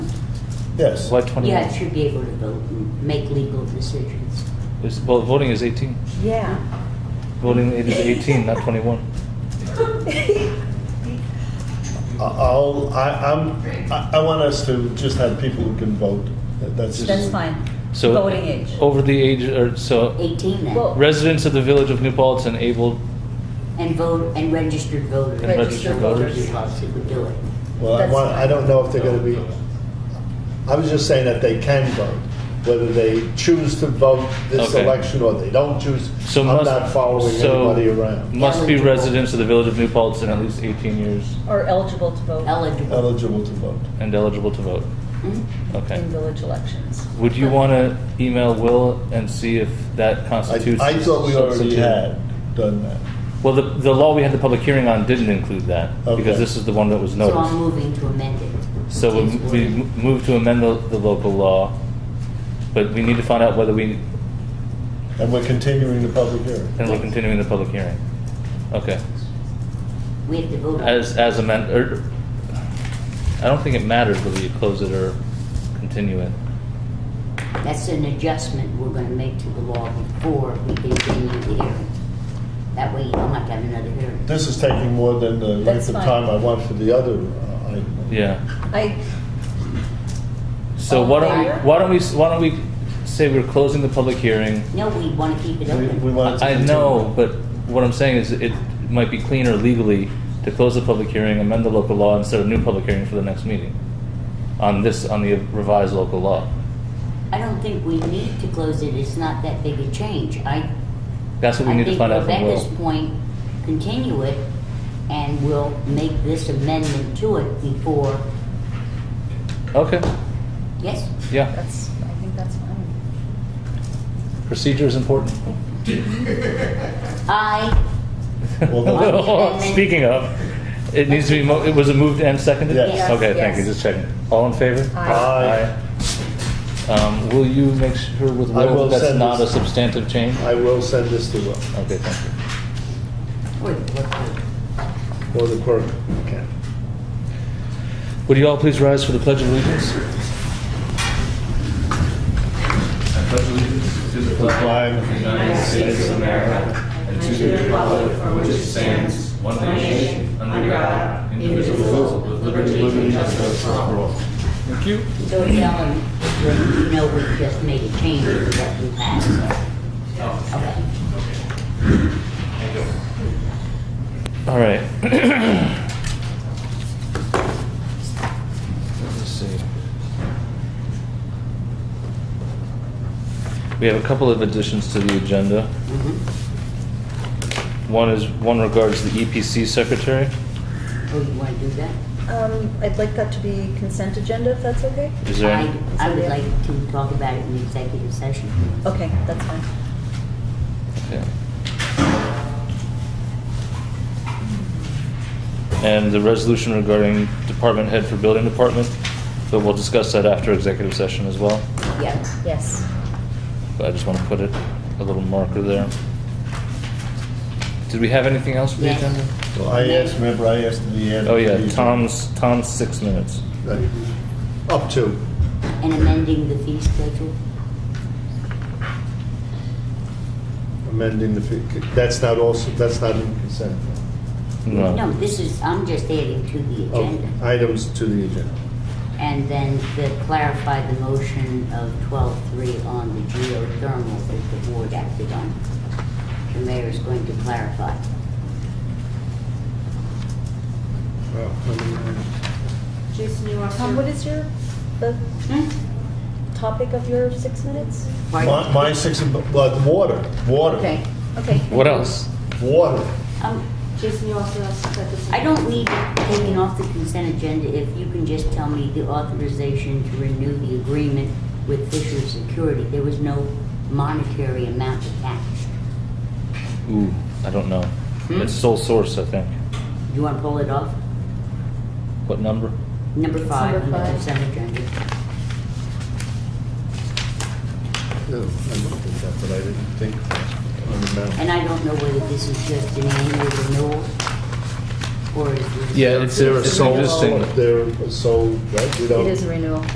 Yes. Why 21? Yeah, it should be able to vote and make legal decisions. It's, well, voting is 18. Yeah. Voting age is 18, not 21. I'll, I, I'm, I I want us to just have people who can vote. That- That's That's just, fine. So uh, oh. Voting age. Over the age, or so Eighteen then, Well- residents of the village of New Paltz and able and vote, and registered voters. And registered voters. Policy would do it. well, I That's want, I fine. don't know if they're gonna be, I was just saying that they can vote. Whether they choose to vote this Okay. election or they don't choose, So I'm must- not following so- anybody around. must be Eligible. residents of the village of New Paltz and at least 18 years Or eligible to vote Eligible. Eligible to vote. and eligible to vote. Hmm? Okay. in village elections. Would you want to email Will and see if that I, constitutes? I thought we already substitute? had done that. Well, the, the law we had the public hearing on didn't include that Okay. because this is the one that was So I'm noticed. moving to amend it. So we, It's we worded. moved to amend the, the local law, but we need to find out whether we, And we're continuing the public hearing. and we're continuing the public hearing. Okay. We have to vote on it. As, as amended, or, I don't think it matters whether you close it or continue it. That's an adjustment we're gonna make to the law before we continue the hearing. That way you don't have to have another hearing. This is taking more than the length That's of fine. time I want for the other uh, item. Yeah. I, So All why in don't, we- favor? why don't we, s- why don't we say we're closing the public hearing? No, we wanna keep it We- we open. want it to I I continue. know, but what I'm saying is it might be cleaner legally to close the public hearing, amend the local law, and set a new public hearing for the next meeting on this, on the revised local law. I don't think we need to close it, it's not that big a change. I That's what we need to find out from I think Rebecca's Will. point, continue it, and we'll make this amendment to it before, Okay, yes? yeah, that's, I think that's fine. procedure is important. I, Well, Speaking of, it needs to be, mo- it was a moved and seconded? Yes. Yes. Okay, thank you, Yes. just checking. All in favor? Aye. Aye. Um, will you make sure with I will Will that that's send not a this- substantive change? I will send this to Will, Okay, thank you. wait, what- what- or the clerk can. Would you all please rise for the Pledge of Allegiance? Flag United States of America and to the republic for which it stands, one nation, under God, indivisible, with liberty and justice for all. so Ellen, you know we just made a change to what we passed, so, okay? All right. Let's see. We have a couple of additions to the agenda. Mhm. One is, one regards the EPC secretary. Oh, you wanna do that? Um, I'd like that to be consent agenda, if that's okay? Is there, I, any- I would like to talk about it in executive session. Okay, that's fine. yeah. And the resolution regarding department head for building department, but we'll discuss that after executive session as well. Yeah, Yes. But I just want to put it, a little marker there. Did we have anything else for the Yes. agenda? So I asked, remember, I asked in the end. Oh, yeah, Tom's, Tom's six minutes. Right. Up to. and amending the fee schedule, amending the, fee- that's not also, that's not in consent. no, this is, I'm just adding to the Oh, agenda. Items to the agenda. And then to clarify the motion of 12-3 on the geothermal that the board acted on. The mayor is going to clarify. Wow, how many items? Jason, you want to? Tom, what is your, the topic of your six minutes? Pardon? My, my six, of- well, water, water, Okay. Okay. What else? water. Um, Jason, you also have to set this. I don't need it taken off the consent agenda if you can just tell me the authorization to renew the agreement with Fisher Security. There was no monetary amount attached. Ooh, I don't know. Hmm? It's sole source, I think. Do you want to pull it off? What number? Number It's five on number the five. consent agenda. Yeah, I looked at that, but I didn't think on the amount. And I don't know whether this is just an annual renewal or is this... Yeah, it's- They're a It's sole- just- They're a sole, right? We don't- renewal.